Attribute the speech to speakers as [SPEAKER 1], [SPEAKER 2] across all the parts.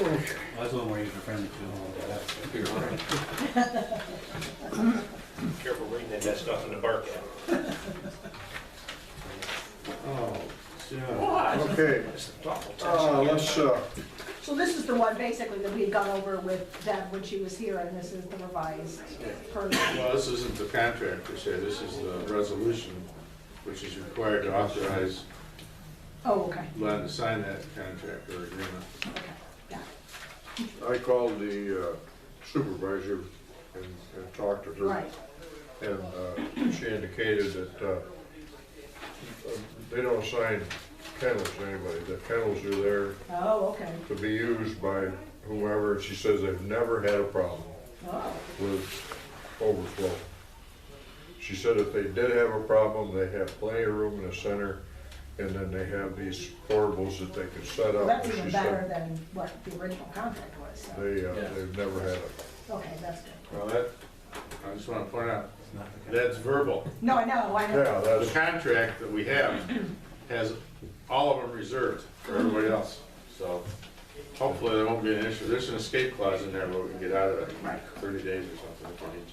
[SPEAKER 1] Well, that's a little more user-friendly too.
[SPEAKER 2] Careful reading it, that's nothing to bark at.
[SPEAKER 3] Oh, yeah.
[SPEAKER 2] What?
[SPEAKER 3] Okay,
[SPEAKER 2] That's an awful
[SPEAKER 3] uh, let's,
[SPEAKER 2] test.
[SPEAKER 3] uh,
[SPEAKER 4] So this is the one basically that we had gone over with Deb when she was here, and this is the revised version.
[SPEAKER 5] Well, this isn't the contract per se, this is the resolution, which is required to authorize
[SPEAKER 4] Oh, okay,
[SPEAKER 5] Len to sign that contract or agreement.
[SPEAKER 4] okay, yeah.
[SPEAKER 3] I called the uh, supervisor and, and talked to her.
[SPEAKER 4] Right.
[SPEAKER 3] And uh, she indicated that uh, they don't sign kennels to anybody, the kennels are there
[SPEAKER 4] Oh, okay,
[SPEAKER 3] to be used by whoever, and she says they've never had a problem
[SPEAKER 4] oh,
[SPEAKER 3] with overflow. She said if they did have a problem, they have plenty of room in the center, and then they have these portables that they can set
[SPEAKER 4] well,
[SPEAKER 3] up.
[SPEAKER 4] that's
[SPEAKER 3] And she
[SPEAKER 4] even
[SPEAKER 3] said
[SPEAKER 4] better than what the original contract was, so,
[SPEAKER 3] They, uh,
[SPEAKER 1] Yeah.
[SPEAKER 3] they've never had a,
[SPEAKER 4] okay, that's good.
[SPEAKER 5] Well, that, I just want to point out,
[SPEAKER 1] It's not the kind-
[SPEAKER 5] that's verbal.
[SPEAKER 4] No, I know, I know,
[SPEAKER 3] yeah,
[SPEAKER 5] The
[SPEAKER 3] that's,
[SPEAKER 5] contract that we have has all of them reserved for everybody else, so hopefully there won't be an issue. There's an escape clause in there where we can get out of it in
[SPEAKER 4] Right.
[SPEAKER 5] thirty days or something if we need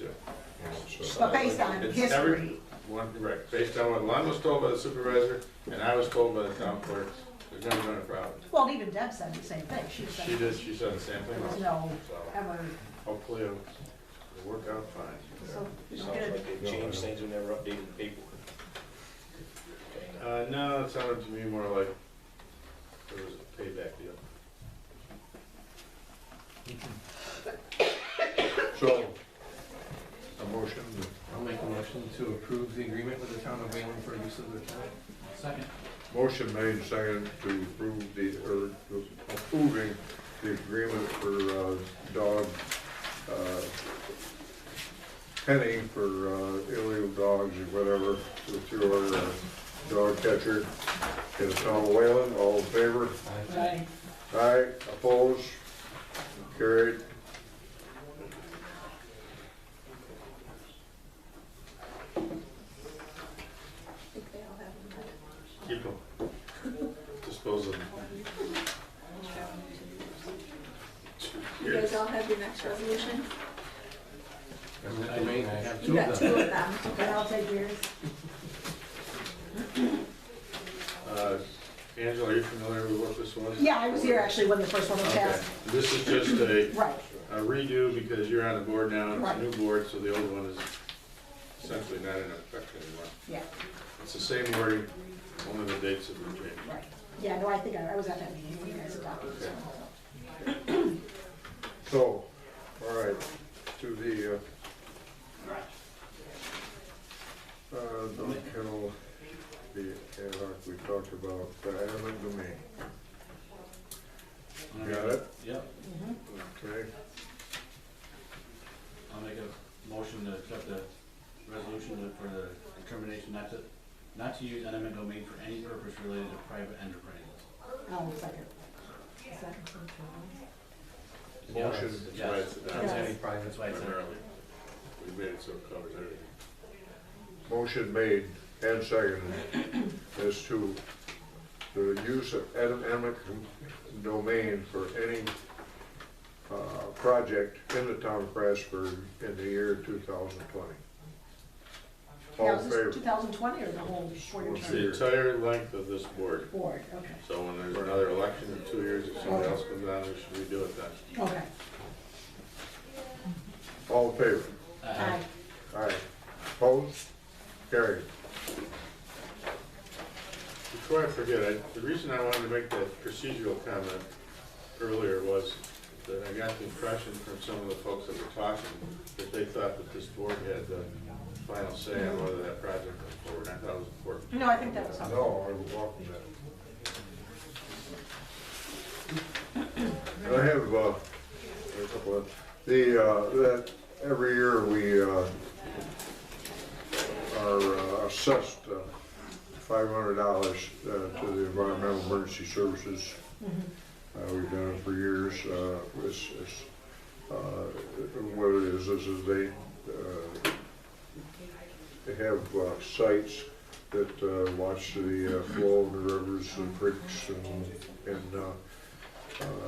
[SPEAKER 5] to.
[SPEAKER 3] so,
[SPEAKER 4] but based on
[SPEAKER 5] It's
[SPEAKER 4] history,
[SPEAKER 5] every- One, right, based on what Len was told by the supervisor and I was told by the town clerk, there's never been a problem.
[SPEAKER 4] well, even Deb said the same thing, she
[SPEAKER 5] She
[SPEAKER 4] said
[SPEAKER 5] did, she said the same
[SPEAKER 4] there
[SPEAKER 5] thing
[SPEAKER 4] was
[SPEAKER 5] also,
[SPEAKER 4] no
[SPEAKER 5] so
[SPEAKER 4] ever,
[SPEAKER 5] hopefully it'll it'll work out fine.
[SPEAKER 4] so,
[SPEAKER 2] It
[SPEAKER 4] it's
[SPEAKER 2] Sounds
[SPEAKER 4] good.
[SPEAKER 2] like they've changed things and never updated the paperwork.
[SPEAKER 5] Uh, no, it sounded to me more like it was a payback deal.
[SPEAKER 3] so, a motion,
[SPEAKER 6] I'll make a motion to approve the agreement with the town of Wayland for use of the town.
[SPEAKER 1] Second.
[SPEAKER 3] motion made, second, to approve the, or to approving the agreement for, uh, dog, uh, penning for, uh, illegal dogs or whatever, with your, uh, dog catcher. Get it on Whalen, all in favor?
[SPEAKER 4] Right.
[SPEAKER 3] Aye, opposed, carried.
[SPEAKER 5] Keep them. Dispose of them.
[SPEAKER 7] You guys all have your next resolution?
[SPEAKER 6] And that the main, I have
[SPEAKER 7] You
[SPEAKER 6] two
[SPEAKER 7] got
[SPEAKER 6] of
[SPEAKER 7] two
[SPEAKER 6] them.
[SPEAKER 7] of them.
[SPEAKER 4] okay, I'll take yours.
[SPEAKER 5] Uh, Angela, are you familiar with what this was?
[SPEAKER 4] Yeah, I was here actually when the first one was
[SPEAKER 5] Okay,
[SPEAKER 4] passed,
[SPEAKER 5] this is just a
[SPEAKER 4] right,
[SPEAKER 5] a redo because you're on the board now, it's a
[SPEAKER 4] Right.
[SPEAKER 5] new board, so the old one is essentially not in effect anymore.
[SPEAKER 4] yeah,
[SPEAKER 5] It's the same wording, only the dates have been changed.
[SPEAKER 4] right. Yeah, no, I think I I was at that meeting when you guys adopted this one, so.
[SPEAKER 3] So, all right, to the, uh, uh, dog kennel, the ad hoc we talked about, the animal domain. You Got it?
[SPEAKER 1] Yep,
[SPEAKER 5] Mm-hmm.
[SPEAKER 3] Okay,
[SPEAKER 1] I'll make a motion to accept the resolution to- for the determination not to, not to use eminent domain for any purpose related to private enterprises.
[SPEAKER 4] Oh, second.
[SPEAKER 3] Motion.
[SPEAKER 5] That's why it's
[SPEAKER 1] That's
[SPEAKER 5] adopted
[SPEAKER 4] Yeah.
[SPEAKER 1] any private, that's why it's a-
[SPEAKER 5] primarily. We made it so it covers everything.
[SPEAKER 3] motion made and seconded as to the use of animal domain for any, uh, project in the town of Prasburg in the year two thousand twenty. All
[SPEAKER 4] Now,
[SPEAKER 3] in
[SPEAKER 4] is
[SPEAKER 3] favor?
[SPEAKER 4] this 2020 or the whole four-year
[SPEAKER 5] It's the
[SPEAKER 4] term?
[SPEAKER 5] entire length of this board,
[SPEAKER 4] Board, okay,
[SPEAKER 5] so when there's another election in two years, if somebody else comes on, we should redo it then.
[SPEAKER 4] okay.
[SPEAKER 3] All in favor?
[SPEAKER 1] Uh,
[SPEAKER 4] Aye.
[SPEAKER 3] Aye. Opposed? Carried.
[SPEAKER 5] Before I forget, I, the reason I wanted to make that procedural comment earlier was that I got the impression from some of the folks that were talking that they thought that this board had the final say on whether that project went forward. I thought it was important.
[SPEAKER 4] No, I think that was helpful.
[SPEAKER 3] No, I will welcome that. I have, uh, a couple of, the, uh, that, every year we, uh, are uh, assessed, uh, five hundred dollars, uh, to the Environmental Emergency Services. Uh, we've done it for years, uh, it's, it's, uh, what it is, is is they, uh, they have uh, sites that uh, watch the uh, flow of the rivers and creeks and, and uh,